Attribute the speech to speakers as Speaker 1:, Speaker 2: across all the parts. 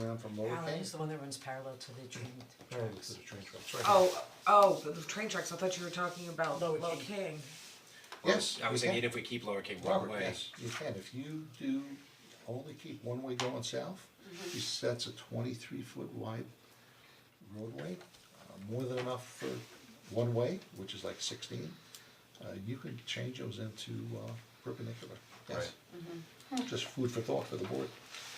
Speaker 1: around from Lower
Speaker 2: Alan
Speaker 1: King.
Speaker 2: is the one that runs parallel to the train
Speaker 1: Oh, this is a train track, it's right here.
Speaker 3: Oh, oh, the the train tracks, I thought you were talking about
Speaker 2: Lower
Speaker 3: Low
Speaker 2: King.
Speaker 3: King.
Speaker 1: Yes,
Speaker 4: I was
Speaker 1: you can.
Speaker 4: thinking even if we keep Lower King one
Speaker 1: Robert,
Speaker 4: way,
Speaker 1: yes, you can, if you do only keep one way going south, you- that's a twenty-three foot wide roadway, uh, more than enough for one way, which is like sixteen. Uh, you can change those into uh, perpendicular, yes. Just food for thought for the board.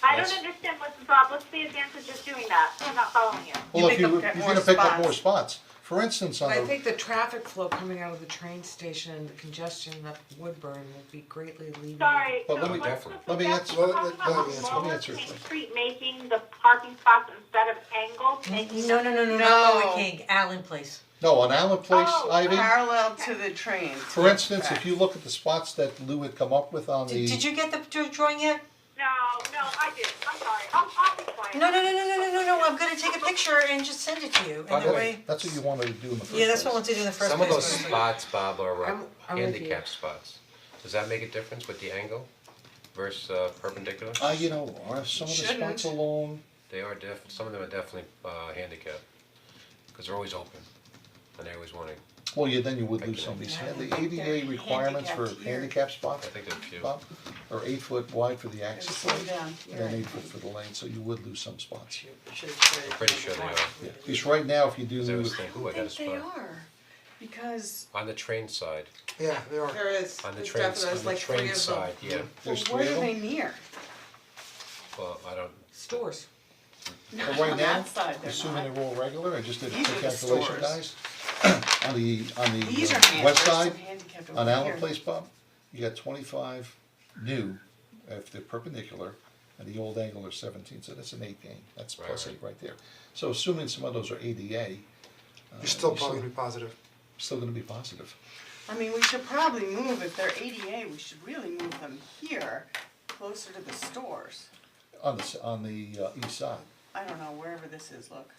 Speaker 5: I don't understand what's the problem, what's the advantage of just doing that, I'm not following you.
Speaker 1: Well, if
Speaker 6: pick
Speaker 1: you,
Speaker 6: up
Speaker 1: were- you're
Speaker 6: that
Speaker 1: gonna
Speaker 6: more
Speaker 1: pick up
Speaker 6: spots.
Speaker 1: more spots, for instance, on
Speaker 3: I
Speaker 1: the,
Speaker 3: think the traffic flow coming out of the train station, the congestion up Woodburn will be greatly alleviated.
Speaker 5: Sorry, so
Speaker 1: Well, let me-
Speaker 5: what's the
Speaker 1: definitely. Let me
Speaker 5: suggestion,
Speaker 1: answer-
Speaker 5: We're
Speaker 1: let- let-
Speaker 5: talking about
Speaker 1: let me answer- let me
Speaker 5: Lower
Speaker 1: answer
Speaker 5: King
Speaker 1: first.
Speaker 5: Street making the parking spots instead of angled, making
Speaker 2: No, no, no, no, not Lower
Speaker 6: No.
Speaker 2: King, Allen Place.
Speaker 1: no, on Allen Place,
Speaker 5: Oh,
Speaker 1: Ivy,
Speaker 6: Parallel to the train.
Speaker 1: for instance, if you look at the spots that Lou had come up with on
Speaker 2: Did, did
Speaker 1: the,
Speaker 2: you get the dr- drawing yet?
Speaker 5: No, no, I did, I'm sorry, I'll, I'll be quiet.
Speaker 2: No, no, no, no, no, no, no, no, I'm gonna take a picture and just send it to you, and that way,
Speaker 1: that's what you wanted to do in the first place.
Speaker 2: yeah, that's what I want to do in the first place.
Speaker 4: some of those
Speaker 2: but-
Speaker 4: spots, Bob, are uh,
Speaker 3: I'm- I'm with you.
Speaker 4: handicap spots. Does that make a difference with the angle versus uh, perpendicular?
Speaker 1: Uh, you know, are some of the spots
Speaker 6: Shouldn't.
Speaker 1: alone,
Speaker 4: They are def, some of them are definitely uh handicap, cause they're always open and they always wanna,
Speaker 1: well, yeah, then you would lose
Speaker 4: Okay.
Speaker 1: some of these, hand- the ADA requirements for
Speaker 6: handicapped here.
Speaker 1: handicap
Speaker 4: I
Speaker 1: spots,
Speaker 4: think they're few.
Speaker 1: Bob, are eight foot wide for the
Speaker 6: Just
Speaker 1: access
Speaker 6: slow
Speaker 1: lane,
Speaker 6: down.
Speaker 1: and then eight foot for the lane, so you would lose some spots.
Speaker 4: I'm pretty sure they are, 'Cause
Speaker 1: Yeah, because right now, if you
Speaker 4: I
Speaker 1: do,
Speaker 4: was thinking, ooh, I got a
Speaker 6: They
Speaker 4: spot.
Speaker 6: are, because
Speaker 4: On the train side,
Speaker 7: Yeah, they are.
Speaker 3: There is,
Speaker 4: on the train, on the train side, yeah,
Speaker 6: well,
Speaker 1: there's three
Speaker 6: what
Speaker 1: of
Speaker 6: are they
Speaker 1: them,
Speaker 6: near?
Speaker 4: well, I don't,
Speaker 3: Stores.
Speaker 1: but right
Speaker 6: On
Speaker 1: now,
Speaker 6: that side they're
Speaker 1: assuming
Speaker 6: not.
Speaker 1: they're all regular, I just did a
Speaker 6: These
Speaker 1: quick
Speaker 6: are the
Speaker 1: calculation,
Speaker 6: stores.
Speaker 1: guys. On the, on the
Speaker 6: These are
Speaker 1: uh,
Speaker 6: hand,
Speaker 1: west
Speaker 6: there's some
Speaker 1: side,
Speaker 6: handicapped over
Speaker 1: on Allen
Speaker 6: here.
Speaker 1: Place, Bob, you got twenty-five new, if they're perpendicular, and the old angle are seventeen, so that's an eight gain, that's
Speaker 4: Right,
Speaker 1: plus
Speaker 4: right.
Speaker 1: eight right there. So assuming some of those are ADA,
Speaker 7: You're still probably gonna be positive.
Speaker 1: still gonna be positive.
Speaker 6: I mean, we should probably move, if they're ADA, we should really move them here, closer to the stores.
Speaker 1: On the, s- on the uh, east side,
Speaker 6: I don't know, wherever this is, look.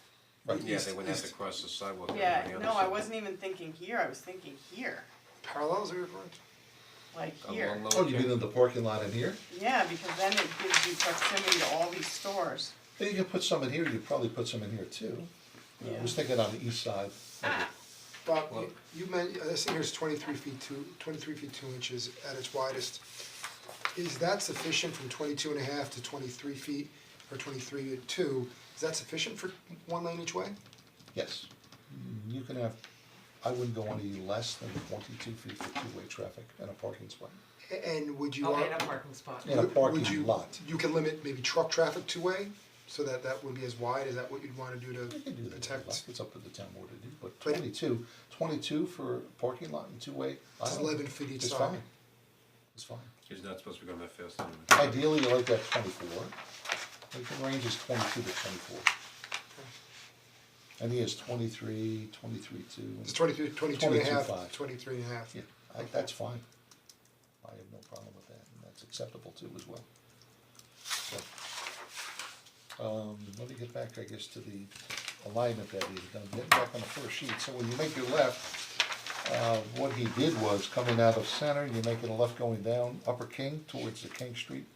Speaker 1: right,
Speaker 4: yeah,
Speaker 1: east,
Speaker 4: they wouldn't have to cross the sidewalk. on
Speaker 6: Yeah,
Speaker 4: the other
Speaker 6: no, I
Speaker 4: side.
Speaker 6: wasn't even thinking here, I was thinking here,
Speaker 7: Parallels are referring to?
Speaker 6: like here.
Speaker 4: Along Lower
Speaker 1: oh, you mean
Speaker 4: King.
Speaker 1: in the parking lot in here?
Speaker 6: Yeah, because then it gives you proximity to all these stores.
Speaker 1: Then you could put some in here, you could probably put some in here too. I was thinking on the east side,
Speaker 7: Bob, you- you meant, uh, this thing here is twenty-three feet two, twenty-three feet two inches at its widest. Is that sufficient from 22 and a half to twenty-three feet or twenty-three to two? Is that sufficient for one lane each way?
Speaker 1: yes. You can have, I wouldn't go any less than twenty-two feet for two-way traffic in a parking spot,
Speaker 7: A- And would you?
Speaker 3: Oh,
Speaker 7: ar-
Speaker 3: and a parking spot.
Speaker 1: in a
Speaker 7: would-
Speaker 1: parking lot.
Speaker 7: would you- You can limit maybe truck traffic two-way, so that that would be as wide, is that what you'd wanna do
Speaker 1: You
Speaker 7: to
Speaker 1: can do that, if you'd like.
Speaker 7: protect?
Speaker 1: it's up to the town board to do, but
Speaker 7: But-
Speaker 1: 22, 22 for parking lot and two-way, I
Speaker 7: It's
Speaker 1: don't-
Speaker 7: 11 feet each
Speaker 1: it's
Speaker 7: side.
Speaker 1: fine. It's fine,
Speaker 4: He's not supposed to be going that fast anyway.
Speaker 1: ideally, you like that twenty-four, like the range is twenty-two to twenty-four. And he has 23, 23 two,
Speaker 7: It's
Speaker 1: and,
Speaker 7: 22 22 and a half,
Speaker 1: 22.5.
Speaker 7: 23 and a half.
Speaker 1: yeah, I, that's fine. I have no problem with that, and that's acceptable too as well. So, Um, let me get back, I guess, to the alignment that he's done, get back on the first sheet, so when you make your left, uh, what he did was coming out of center, you're making a left going down Upper King towards the King Street,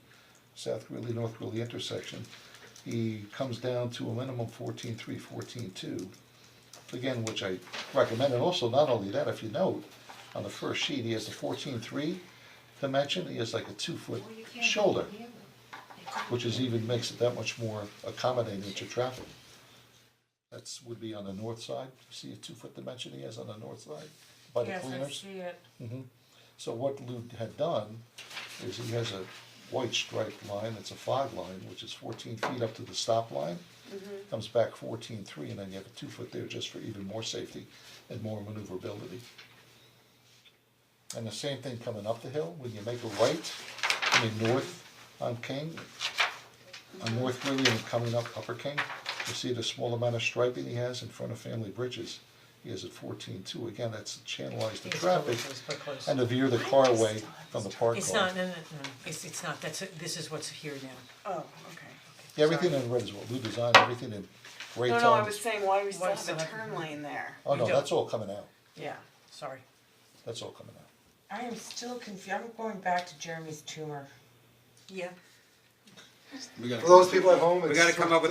Speaker 1: South Greeley, North Greeley intersection. He comes down to a minimum fourteen three, fourteen two. Again, which I recommend, and also not only that, if you note, on the first sheet, he has the fourteen three dimension, he has like a two foot shoulder. Which is even makes it that much more accommodating to traffic. That's would be on the north side, see a two foot dimension he has on the north side, by the
Speaker 3: Yes,
Speaker 1: cleaners?
Speaker 3: I see it.
Speaker 1: So what Lou had done is he has a white striped line, it's a fog line, which is fourteen feet up to the stop line. Comes back fourteen three, and then you have a two foot there just for even more safety and more maneuverability. And the same thing coming up the hill, when you make a right, I mean north on King, on North Greeley and coming up Upper King, you see the small amount of striping he has in front of Family Bridges. He has at fourteen two, again, that's channelized the
Speaker 2: It's close,
Speaker 1: traffic
Speaker 2: but close.
Speaker 1: and to veer the car away from the park
Speaker 2: It's
Speaker 1: line.
Speaker 2: not, no, no, no, it's, it's not, that's, this is what's here now.
Speaker 6: Oh, okay.
Speaker 1: Everything in red is what we designed, everything in gray
Speaker 6: No,
Speaker 1: tones.
Speaker 6: no, I was saying, why do
Speaker 2: Why
Speaker 6: we still have
Speaker 2: still
Speaker 6: a
Speaker 2: have-
Speaker 6: turn lane there?
Speaker 1: Oh, no,
Speaker 2: you
Speaker 1: that's all coming out,
Speaker 6: Yeah.
Speaker 2: Sorry.
Speaker 1: that's all coming out.
Speaker 3: I am still confused, I'm going back to Jeremy's tumor.
Speaker 2: Yeah.
Speaker 4: We gotta,
Speaker 7: For those people at home, it's.
Speaker 4: we gotta come up with